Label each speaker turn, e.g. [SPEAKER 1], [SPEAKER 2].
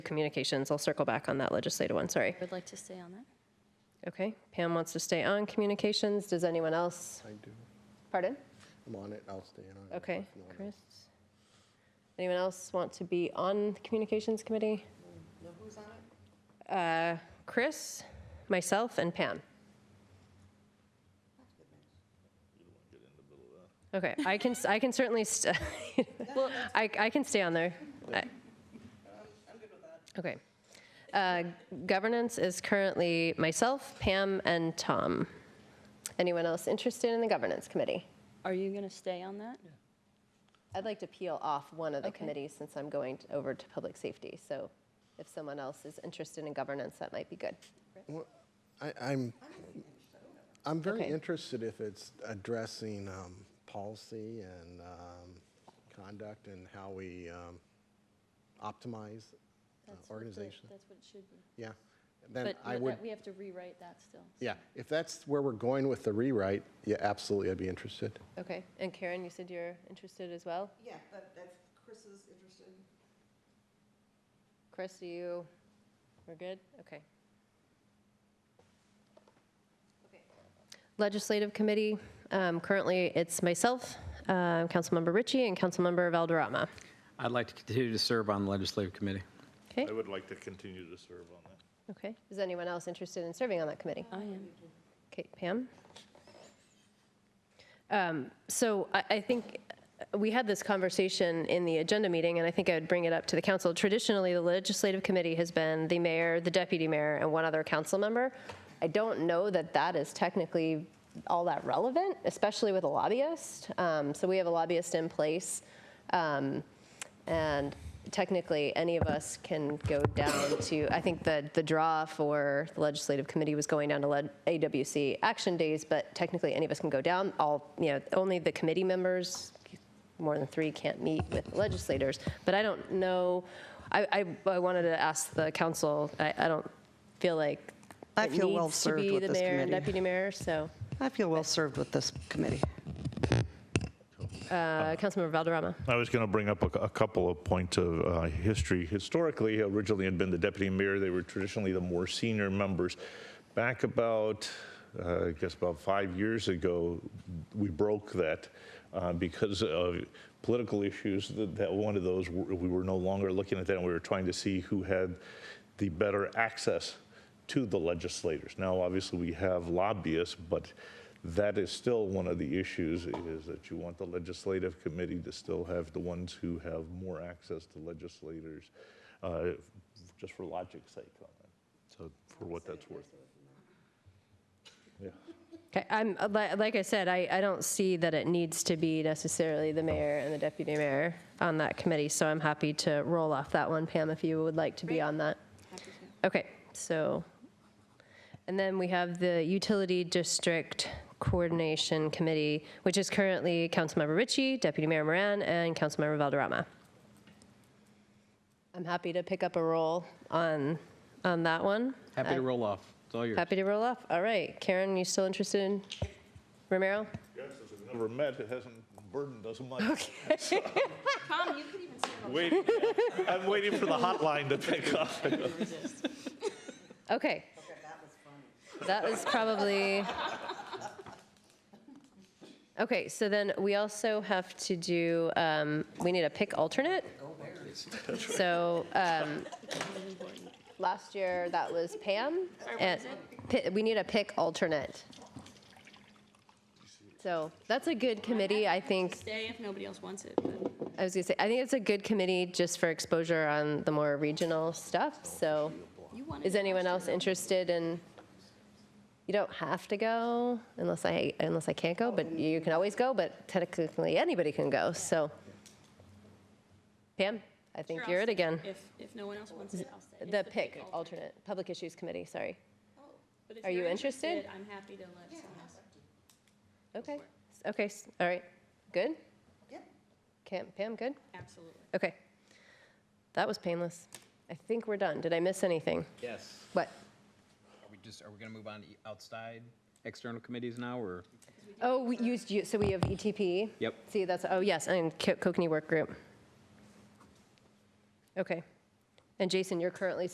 [SPEAKER 1] communications. I'll circle back on that legislative one, sorry.
[SPEAKER 2] I would like to stay on that.
[SPEAKER 1] Okay, Pam wants to stay on communications. Does anyone else?
[SPEAKER 3] I do.
[SPEAKER 1] Pardon?
[SPEAKER 3] I'm on it, I'll stay on it.
[SPEAKER 1] Okay,
[SPEAKER 3] if no one
[SPEAKER 1] Chris.
[SPEAKER 3] else-
[SPEAKER 1] Anyone else want to be on the communications committee? Uh, Chris, myself, and Pam. Okay, I can, I can certainly, st-
[SPEAKER 2] Well,
[SPEAKER 1] I, I can stay on there. I- Okay. Uh, Governance is currently myself, Pam, and Tom. Anyone else interested in the governance committee?
[SPEAKER 2] are you going to stay on that?
[SPEAKER 1] I'd like to peel off one of the
[SPEAKER 2] Okay.
[SPEAKER 1] committees since I'm going t- over to public safety. So if someone else is interested in governance, that might be good.
[SPEAKER 3] Well, I, I'm, I'm very
[SPEAKER 1] Okay.
[SPEAKER 3] interested if it's addressing um, policy and um, conduct and how we um, optimize uh, organization.
[SPEAKER 2] That's what it should be.
[SPEAKER 3] Yeah, then
[SPEAKER 2] But
[SPEAKER 3] I
[SPEAKER 2] but
[SPEAKER 3] would,
[SPEAKER 2] that- we have to rewrite that still.
[SPEAKER 3] yeah, if that's where we're going with the rewrite, yeah, absolutely, I'd be interested.
[SPEAKER 1] Okay. And Karen, you said you're interested as well?
[SPEAKER 4] Yeah, that, that's, Chris is interested.
[SPEAKER 1] Chris, do you, we're good? Okay. Legislative Committee, um, currently it's myself, um, Councilmember Ritchie, and Councilmember Valderrama.
[SPEAKER 5] I'd like to continue to serve on the Legislative Committee.
[SPEAKER 1] Okay,
[SPEAKER 6] I would like to continue to serve on that.
[SPEAKER 1] okay. Is anyone else interested in serving on that committee?
[SPEAKER 2] I am.
[SPEAKER 1] Okay, Pam? Um, So I, I think we had this conversation in the agenda meeting, and I think I would bring it up to the council. Traditionally, the legislative committee has been the mayor, the deputy mayor, and one other council member. I don't know that that is technically all that relevant, especially with a lobbyist. Um, So we have a lobbyist in place. Um, and technically, any of us can go down to, I think the, the draw for the legislative committee was going down to led- AWC action days, but technically, any of us can go down. All, you know, only the committee members, more than three, can't meet with legislators. But I don't know, I, I, I wanted to ask the council, I, I don't feel like
[SPEAKER 4] I
[SPEAKER 1] it
[SPEAKER 4] feel
[SPEAKER 1] needs
[SPEAKER 4] well
[SPEAKER 1] to
[SPEAKER 4] served
[SPEAKER 1] be
[SPEAKER 4] with
[SPEAKER 1] the
[SPEAKER 4] this
[SPEAKER 1] mayor and
[SPEAKER 4] committee.
[SPEAKER 1] deputy mayor, so.
[SPEAKER 4] I feel well-served with this committee.
[SPEAKER 1] Uh, Councilmember Valderrama.
[SPEAKER 6] I was going to bring up a, a couple of points of uh, history. Historically, originally had been the deputy mayor. They were traditionally the more senior members. Back about, uh, I guess, about five years ago, we broke that uh, because of political issues. That, that one of those we were no longer looking at that, and we were trying to see who had the better access to the legislators. Now, obviously, we have lobbyists, but that is still one of the issues, is that you want the legislative committee to still have the ones who have more access to legislators, uh, just for logic's sake on that, so for what that's worth. Yeah.
[SPEAKER 1] Okay, I'm, li- like I said, I, I don't see that it needs to be necessarily the mayor and the deputy mayor on that committee, so I'm happy to roll off that one, Pam, if you would like to be on that. Okay, so, and then we have the Utility District Coordination Committee, which is currently Councilmember Ritchie, Deputy Mayor Moran, and Councilmember Valderrama. I'm happy to pick up a role on, on that one.
[SPEAKER 5] Happy to roll off. It's all yours.
[SPEAKER 1] Happy to roll off. All right, Karen, you still interested in Romero?
[SPEAKER 6] Yes, since we've never met, it hasn't burdened us much. Tom, you could even stand on. I'm waiting for the hotline to pick up.
[SPEAKER 1] Okay. That was probably. Okay, so then we also have to do, um, we need a pick alternate. So, um, last year that was Pam. and pi- We need a pick alternate. So that's a good committee, I think.
[SPEAKER 2] Stay if nobody else wants it, but
[SPEAKER 1] I was gonna say, I think it's a good committee just for exposure on the more regional stuff, so
[SPEAKER 2] you want it.
[SPEAKER 1] is anyone else interested in, you don't have to go unless I, unless I can't go, but you can always go, but technically anybody can go, so. Pam, I think you're it again.
[SPEAKER 2] If, if no one else wants it, I'll stay. It's
[SPEAKER 1] The PIC
[SPEAKER 2] alternate.
[SPEAKER 1] alternate, Public Issues Committee, sorry.
[SPEAKER 2] But if
[SPEAKER 1] Are you
[SPEAKER 2] you're
[SPEAKER 1] interested?
[SPEAKER 2] I'm happy to let someone else.
[SPEAKER 1] Okay, s- okay, s- all right, good? Yep. Pam, good?
[SPEAKER 2] Absolutely.
[SPEAKER 1] Okay. That was painless. I think we're done. Did I miss anything?
[SPEAKER 5] Yes.
[SPEAKER 1] What?
[SPEAKER 5] Are we just, are we going to move on to e- outside external committees now, or?
[SPEAKER 1] Oh, we used, you- so we have ETP?
[SPEAKER 5] Yep.
[SPEAKER 1] See, that's, oh, yes, and Co- Kokanee Work Group. Okay. And Jason, you're currently